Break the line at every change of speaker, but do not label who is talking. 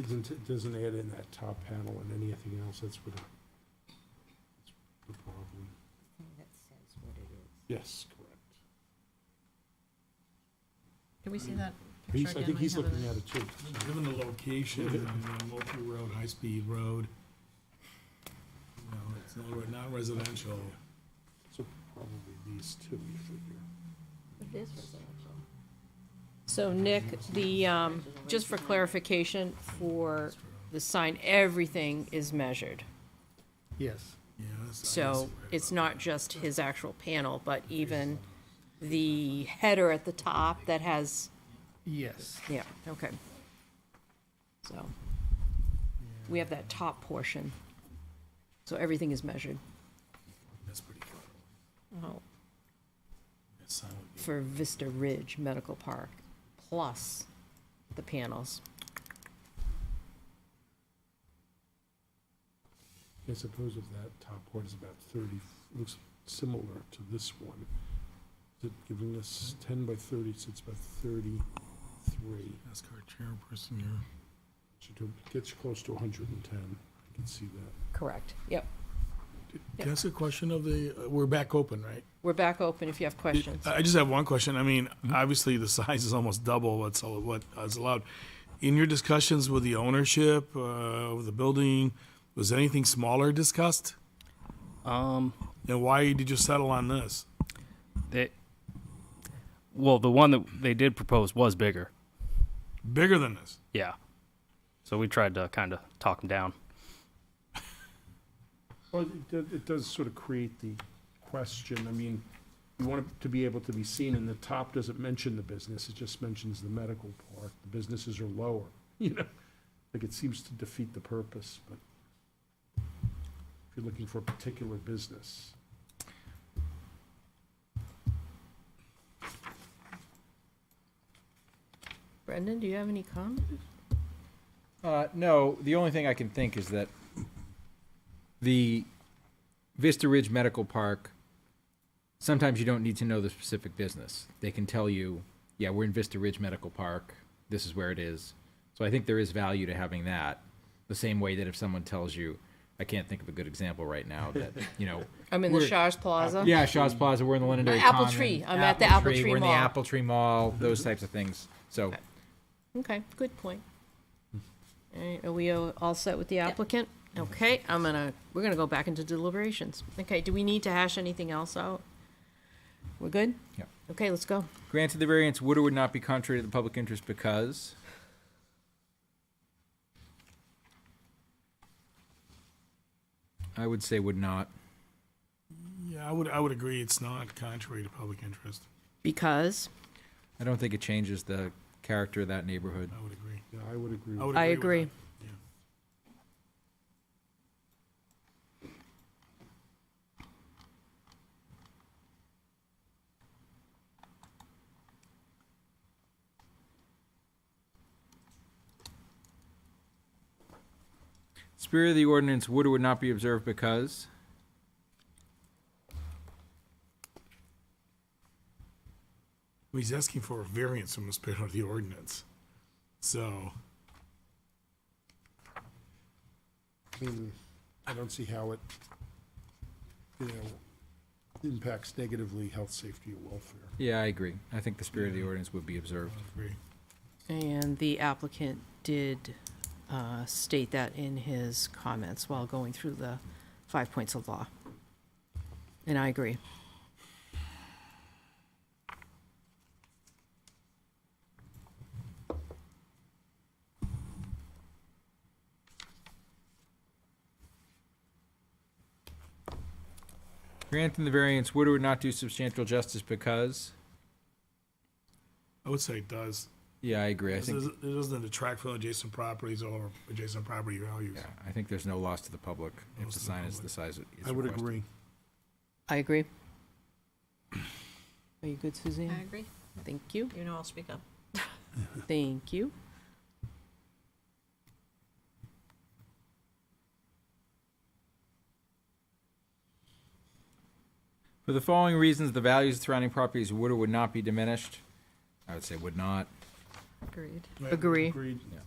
Doesn't, doesn't add in that top panel and anything else, that's what, that's the problem.
That says what it is.
Yes, correct.
Can we see that picture
He's,
again?
I think
We
he's
have
looking
it.
at it too.
Given the location, you know, Multi Road, High Speed Road, you know, it's not- not residential.
So probably these two, you figure.
It is residential.
So Nick, the, um, just for clarification, for the sign, everything is measured.
Yes.
Yeah, that's- I
So
guess-
it's not just his actual panel, but even the header at the top that has,
Yes.
yeah, okay. So we have that top portion. So everything is measured.
That's pretty cool.
Oh,
That sign would be-
for Vista Ridge Medical Park, plus the panels.
I suppose if that top one is about thirty, looks similar to this one. Is it giving us ten by thirty, so it's about thirty-three.
Ask our chairperson here.
Should do- Gets close to hundred and ten, I can see that.
Correct, yep.
Can I ask a question of the, uh, we're back open, right?
We're back open if you have questions.
I I just have one question. I mean,
Mm-hmm.
obviously, the size is almost double what's, al- what is allowed. In your discussions with the ownership uh, of the building, was anything smaller discussed?
Um,
And why did you settle on this?
they, well, the one that they did propose was bigger.
Bigger than this?
Yeah. So we tried to kind of talk them down.
Well, it does, it does sort of create the question, I mean, you want it to be able to be seen, and the top doesn't mention the business, it just mentions the medical part, the businesses are lower, you know? Like, it seems to defeat the purpose, but if you're looking for a particular business.
Brendan, do you have any comments?
Uh, no, the only thing I can think is that the Vista Ridge Medical Park, sometimes you don't need to know the specific business. They can tell you, yeah, we're in Vista Ridge Medical Park, this is where it is. So I think there is value to having that. The same way that if someone tells you, I can't think of a good example right now, that, you know,
I'm in the
We're-
Shaw's Plaza.
yeah, Shaw's Plaza, we're in the Londonderry
Apple
Common,
Tree, I'm at the Apple Tree
We're in the
Mall.
Apple Tree Mall, those types of things. So,
Okay, good point. All right, are we all all set with the applicant? Okay, I'm gonna, we're gonna go back into deliberations. Okay, do we need to hash anything else out? We're good?
Yep.
Okay, let's go.
granted the variance would or would not be contrary to the public interest because I would say would not.
Yeah, I would, I would agree it's not contrary to public interest.
Because
I don't think it changes the character of that neighborhood.
I would agree.
Yeah, I would
Mm-hmm.
agree.
I would
I
with
agree.
that.
Spirit of the ordinance would or would not be observed because
Well, He's asking for a variance from the spirit of the ordinance. So,
I mean, I don't see how it, you know, impacts negatively health, safety, or welfare.
yeah, I agree. I think the spirit of the ordinance would be observed.
I agree.
And the applicant did uh, state that in his comments while going through the five points of law. And I agree.
Granting the variance would or would not do substantial justice because
I would say it does.
yeah, I agree. I
It
think
doesn't it doesn't detract from adjacent properties or adjacent property values.
yeah, I think there's no loss to the public if
Loss
the
to the
sign is
public.
the size it is
I would
requested.
agree.
I agree. Are you good, Suzanne?
I agree.
Thank you.
You know I'll speak up.
Thank you.
For the following reasons, the values of surrounding properties would or would not be diminished. I would say would not.
Agreed.
Agree.
Agreed.
Yeah.